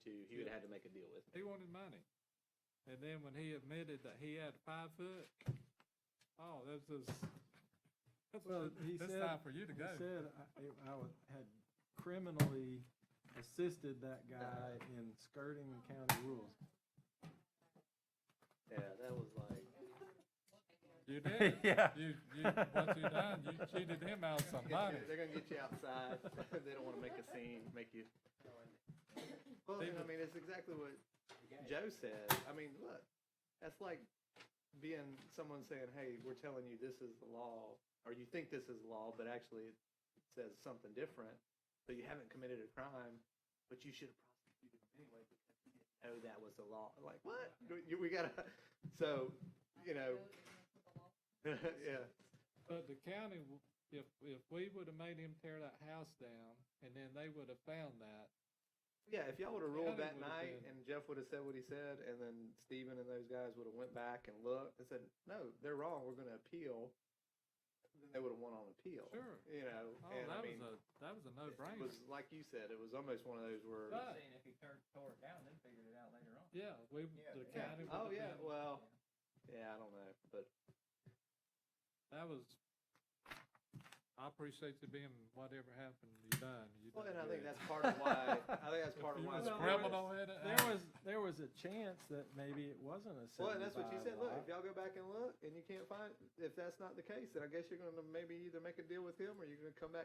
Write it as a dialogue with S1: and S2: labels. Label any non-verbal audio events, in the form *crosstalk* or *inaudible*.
S1: had to make a deal with me.
S2: He wanted money. And then when he admitted that he had five foot, oh, that's just, that's,
S3: Well, he
S2: that's
S3: said-
S2: time for you to
S3: He
S2: go.
S3: said I- I was- had criminally assisted that guy in skirting county rules.
S1: Yeah, that was like,
S3: *laughs*
S2: You did. it.
S4: Yeah.
S2: You, you, what you done, you cheated him out of somebody.
S1: they're gonna get you outside. *laughs* they don't want to make a scene, make you. Well, I mean, it's exactly what Joe said. I mean, look, that's like being someone saying, "Hey, we're telling you this is the law," or you think this is law, but actually it says something different. So you haven't committed a crime, but you should have prosecuted him anyway because you didn't know that was the law. Like what? You- We gotta. So, you know. *laughs* yeah.
S2: But the county, w- if, if we would have made him tear that house down and then they would have found that,
S1: Yeah, if y'all would have
S2: Yeah,
S1: ruled
S2: they
S1: that
S2: would've
S1: night
S2: been-
S1: and Jeff would have said what he said, and then Steven and those guys would have went back and looked and said, "No, they're wrong. We're going to appeal." Then they would have won on appeal.
S2: Sure.
S1: You know,
S2: oh,
S1: and I
S2: that was
S1: mean,
S2: a, that was a
S1: it
S2: no-brainer.
S1: was like you said, it was almost one of those where.
S2: But-
S5: Saying if he tore, tore it down, then figured it out later on.
S2: Yeah, we,
S5: Yeah,
S2: the
S5: yeah.
S1: oh
S2: county. would've
S1: yeah,
S2: been-
S1: well, yeah, I don't know, but
S2: That was, I appreciate you being whatever happened, you done, you
S1: well,
S2: done
S1: and I think
S2: good.
S1: that's part of why. I think
S2: *laughs*
S1: that's part of
S2: You
S1: why.
S2: was
S1: it's
S2: criminal in it.
S3: There was, there was a chance that maybe it wasn't a
S1: Well, and that's what you said.
S3: seventy-five
S1: Look, if
S3: lot.
S1: y'all go back and look, and you can't find, if that's not the case, then I guess you're going to maybe either make a deal with him, or you're going to come back.